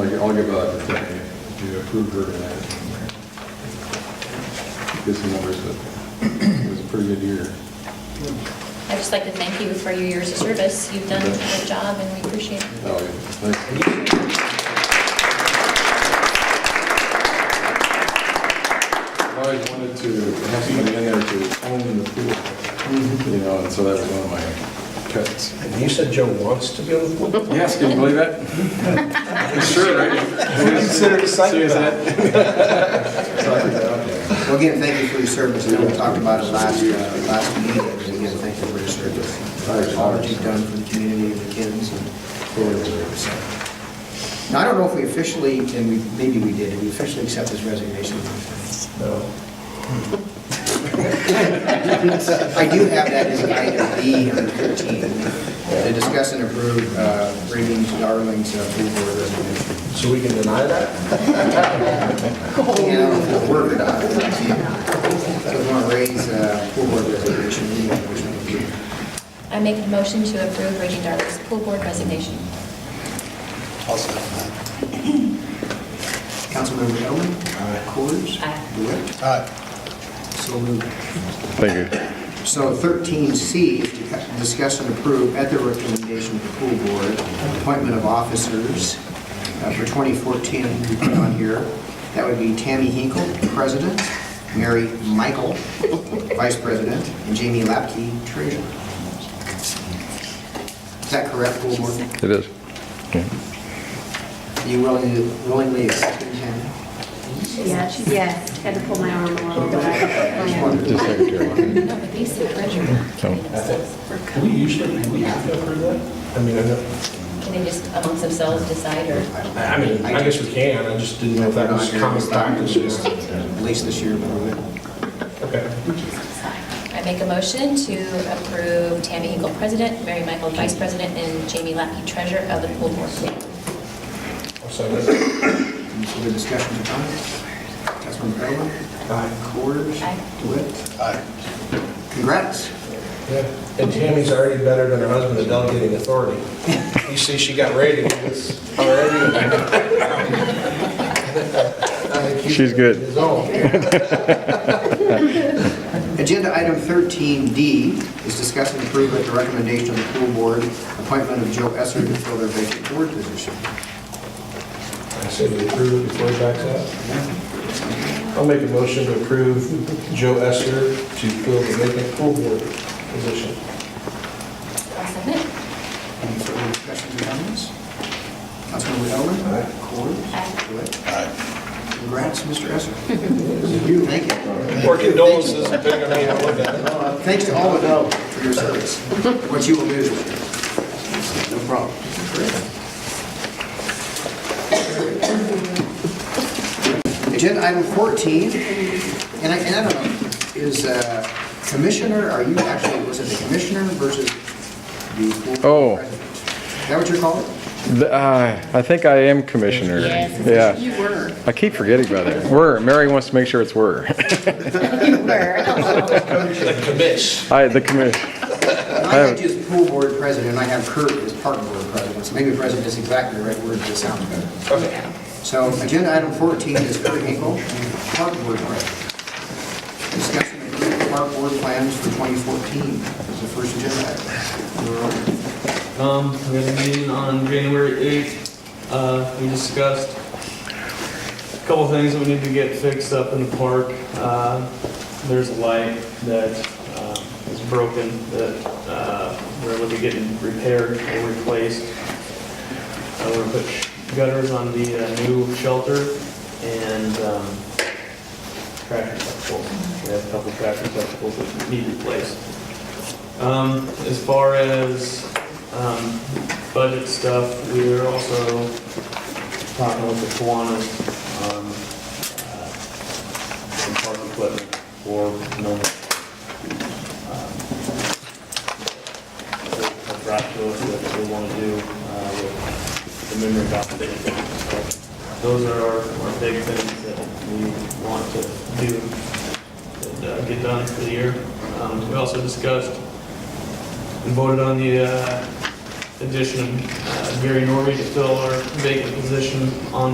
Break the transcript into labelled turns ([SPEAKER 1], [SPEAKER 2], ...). [SPEAKER 1] think I'll give uh, a, if they do approve her tonight. Get some numbers, but it was a pretty good year.
[SPEAKER 2] I'd just like to thank you for your years of service. You've done a good job and we appreciate it.
[SPEAKER 1] Oh, yeah, thanks. I always wanted to have somebody in there to own the pool, you know, and so that was one of my pets.
[SPEAKER 3] And you said Joe wants to be on the board?
[SPEAKER 1] Yes, can you believe that? Sure, right?
[SPEAKER 3] Consider it a site
[SPEAKER 1] Serious,
[SPEAKER 3] plan.
[SPEAKER 1] that?
[SPEAKER 4] Well, again, thank you for your service. I know we talked about it last, uh, last meeting, and again, thank you for your service. All that you've done for the community of the kids and for the service. Now, I don't know if we officially, and we, maybe we did, did we officially accept his resignation?
[SPEAKER 3] No.
[SPEAKER 4] I do have that as item B on 13, to discuss and approve uh, Ravens Darling's uh, food board resignation.
[SPEAKER 3] So we can deny that?
[SPEAKER 4] you know, if it worked out. So we want to raise uh, pool board resignation, we want to push it to you.
[SPEAKER 2] I make a motion to approve Reggie Darling's pool board resignation.
[SPEAKER 4] Councilmember Owen. Aye. Coors.
[SPEAKER 2] Aye.
[SPEAKER 4] DeWitt. So moved.
[SPEAKER 5] Thank you.
[SPEAKER 4] So 13C, is to discuss and approve at the recommendation of the pool board, appointment of officers uh, for 2014, we put on here. That would be Tammy Hinkle, president, Mary Michael, vice president, and Jamie Lapke, treasurer. Is that correct, pool board?
[SPEAKER 5] It is.
[SPEAKER 4] You willingly willingly accept it, Tammy?
[SPEAKER 6] Yeah, she's, yes, had to pull my arm a little bit.
[SPEAKER 5] Just secretary.
[SPEAKER 2] No, but they said Reggie.
[SPEAKER 5] So-
[SPEAKER 3] Do we usually, do we have to approve that? I mean, I know,
[SPEAKER 2] Can they just amongst themselves decide or?
[SPEAKER 3] I I mean, I guess we can, I just didn't know if that was common practice.
[SPEAKER 4] Just At least this year, but
[SPEAKER 3] Okay.
[SPEAKER 2] I make a motion to approve Tammy Hinkle, president, Mary Michael, vice president, and Jamie Lackey, treasurer of the pool board.
[SPEAKER 3] I'll second it.
[SPEAKER 4] any further discussion or comments? Councilmember Irwin?
[SPEAKER 3] Aye.
[SPEAKER 4] Coors?
[SPEAKER 2] Aye.
[SPEAKER 4] DeWitt? Congrats.
[SPEAKER 3] Yeah. And Tammy's already better than her husband at delegating authority. You see, she got ratings already. I think
[SPEAKER 5] She's good.
[SPEAKER 3] His own.
[SPEAKER 4] Agenda item 13D is discuss and approve at the recommendation of the pool board, appointment of Joe Esser to fill their vacant board position.
[SPEAKER 3] I say we approve it before it backs out. I'll make a motion to approve Joe Esser to fill the vacant pool board position.
[SPEAKER 2] I'll second.
[SPEAKER 4] Any further discussion or comments? Councilmember Irwin?
[SPEAKER 3] Aye.
[SPEAKER 4] Coors?
[SPEAKER 2] Aye.
[SPEAKER 4] DeWitt? Congrats, Mr. Esser. Thank you.
[SPEAKER 3] Or condolences, depending on how you look at it.
[SPEAKER 4] Uh, Thanks to all of you for your service, what you will do. No problem. Agenda item 14, and I, and I don't know, is uh, commissioner, are you actually, was it the commissioner versus the
[SPEAKER 5] Oh.
[SPEAKER 4] board president? Is that what you're calling it?
[SPEAKER 5] The- uh, I think I am commissioner.
[SPEAKER 6] Yes,
[SPEAKER 5] Yeah.
[SPEAKER 6] you were,
[SPEAKER 5] I keep forgetting about that. Were, Mary wants to make sure it's were.
[SPEAKER 6] you were.
[SPEAKER 3] Commish.
[SPEAKER 5] I, the commission,
[SPEAKER 4] I had you as pool board president, and I have Kurt as park board president, so maybe president is exactly the right word, but it sounds better.
[SPEAKER 3] Okay.
[SPEAKER 4] So agenda item 14 is Kurt Hinkle, Park Board Plan. Discussion of approved Park Board plans for 2014 is the first agenda item.
[SPEAKER 7] Um, we had a meeting on January 8th. Uh, we discussed a couple things that we need to get fixed up in the park. Uh, there's a light that, uh, is broken that, uh, we're looking at getting repaired or replaced. Uh, we're gonna put gutters on the uh, new shelter and, um, tractor testicles. We have a couple tractor testicles that need replaced. Um, as far as, um, budget stuff, we are also talking with the Kiwanis on, uh, some uh, park equipment for, you know, um, brought to us what they want to do, uh, with the memory foundation. So Those are our, our big things that we want to do, that uh, get done for the year. Um, we also discussed and voted on the uh, addition of uh, Gary Norby to fill our vacant position on